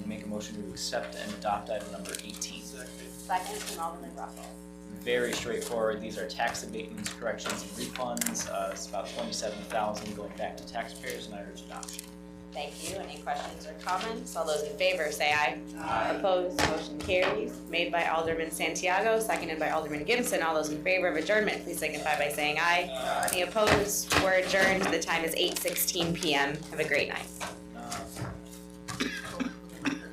motion to accept and adopt item number eighteen. Second from Alderman Russell. Very straightforward. These are tax abatements, corrections, and refunds. Uh, it's about twenty-seven thousand going back to taxpayers and I urge adoption. Thank you. Any questions or comments? All those in favor say aye. Aye. Opposed, motion carries. Made by Alderman Santiago, seconded by Alderman Gibson. All those in favor of adjournment, please signify by saying aye. Any opposed? We're adjourned. The time is eight sixteen PM. Have a great night. Um,